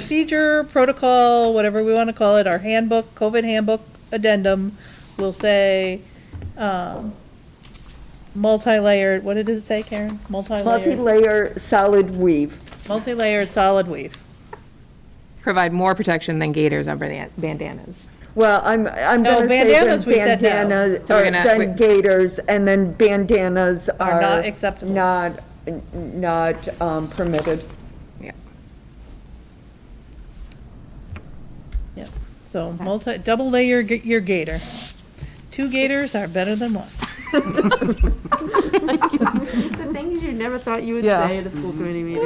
procedure, protocol, whatever we want to call it, our handbook, COVID handbook addendum will say, um, multi-layered, what did it say, Karen? Multi-layered, Multi-layer solid weave. multi-layered solid weave. Provide more protection than gaiters or ban- bandanas. Well, I'm, I'm No, gonna say Oh, then bandanas we said no. bandanas, So we're or gonna- we- then gaiters, and then bandanas Are are. not acceptable. Not, n- not um, permitted. Yeah. Yep, so multi, double layer g- your gator. Two gators are better than one. The things you never thought you would say at a school committee meeting.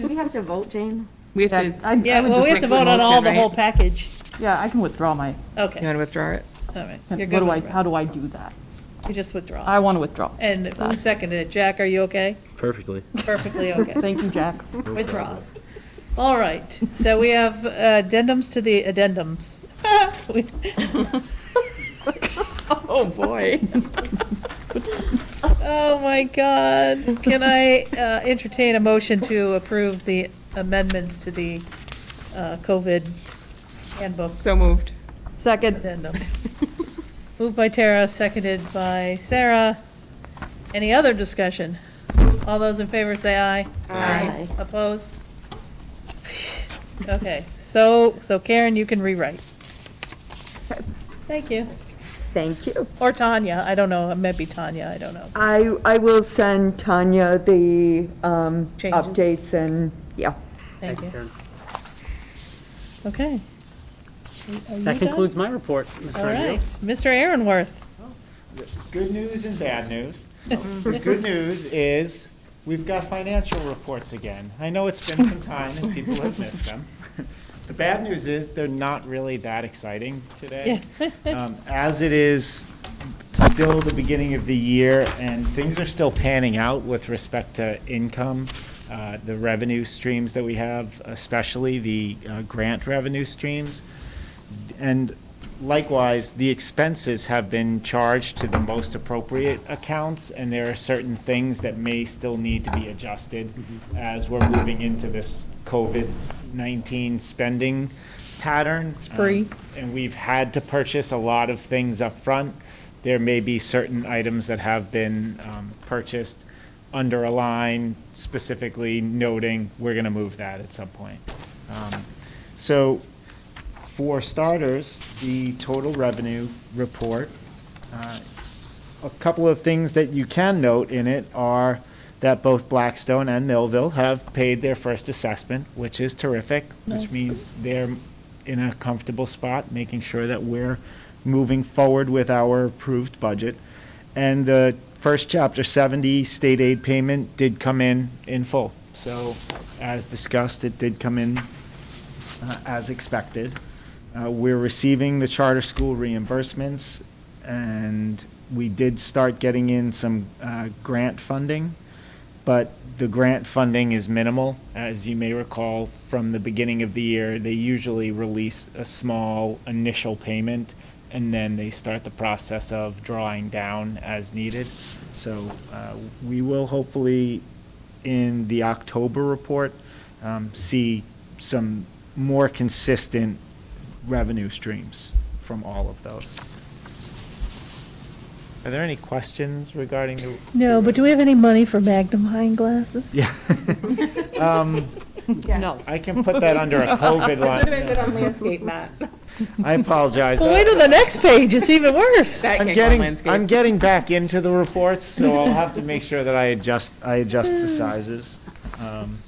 Do we have to vote, Jane? We have to, Yeah, I- I Yeah, would well, we have just to vote mix them on all all in, the right? whole package. like- Yeah, I can withdraw my, you Okay, want to withdraw it? all right, what you're good do I, with how it. do I do that? You just withdraw. I want to withdraw. And who seconded it? Jack, are you okay? Perfectly. Perfectly okay. Thank you, Jack. Withdraw. All right, so we have uh, addendums to the addendums. We- Oh, boy. Oh, my God. Can I uh, entertain a motion to approve the amendments to the uh, COVID handbook So moved. Second, addendum? Moved by Tara, seconded by Sarah. Any other discussion? All those in favor say aye. Aye. Opposed? Okay, so, so Karen, you can rewrite. Thank you. thank you. Or Tanya, I don't know, it might be Tanya, I don't know. I, I will send Tanya the um, Changes. updates and, yeah. Thank you. Okay. Are you done? That concludes my report, Mr. All Revere. right, Mr. Aaronworth. Good news and bad news. The good news is, we've got financial reports again. I know it's been some time and people have missed them. The bad news is, they're not really that exciting today. Um, As it is still the beginning of the year, and things are still panning out with respect to income, uh, the revenue streams that we have, especially the uh, grant revenue streams. And likewise, the expenses have been charged to the most appropriate accounts, and there are certain things that may still need to be adjusted as we're moving into this COVID-19 spending pattern. Spree. Um, And we've had to purchase a lot of things up front. There may be certain items that have been um, purchased under a line specifically noting, we're going to move that at some point. Um, So for starters, the total revenue report. uh, A couple of things that you can note in it are that both Blackstone and Millville have paid their first assessment, which is terrific, which means they're in a comfortable spot, making sure that we're moving forward with our approved budget. And the first Chapter 70 state aid payment did come in in full. So as discussed, it did come in uh, as expected. Uh, We're receiving the charter school reimbursements, and we did start getting in some uh, grant funding, but the grant funding is minimal. As you may recall, from the beginning of the year, they usually release a small initial payment, and then they start the process of drawing down as needed. So uh, we will hopefully, in the October report, um, see some more consistent revenue streams from all of those. Are there any questions regarding the? No, but do we have any money for magnifying glasses? No. I can put that under a COVID line. on landscape, Matt. I apologize. Well, wait till the next page, it's even worse. That I'm can't go on getting, I'm landscape. getting back into the reports, so I'll have to make sure that I adjust, I adjust the sizes. Um,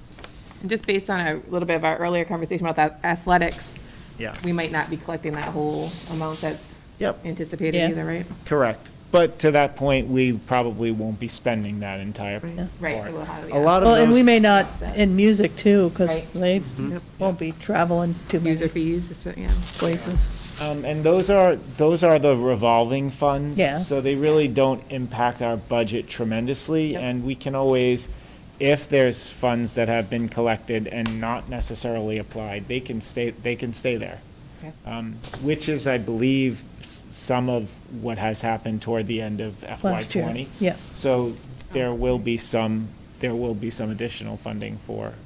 Just based on a little bit of our earlier conversation about that athletics, Yeah, we might not be collecting that whole amount that's yep, Yeah. anticipated either, right? correct. But to that point, we probably won't be spending that entire. Right, so we'll have, A yeah. lot of Well, those. and we may not, in music too, because Right. they won't be traveling to User many fees, it's- yeah. places. Um, and those are, those are the revolving funds. Yeah. So they really don't impact our budget tremendously, Yep. and we can always, if there's funds that have been collected and not necessarily applied, they can stay, they can stay there. Okay. Um, which is, I believe, s- some of what has happened toward the end of FY Last year, twenty. yeah. So there will be some, there will be some additional funding for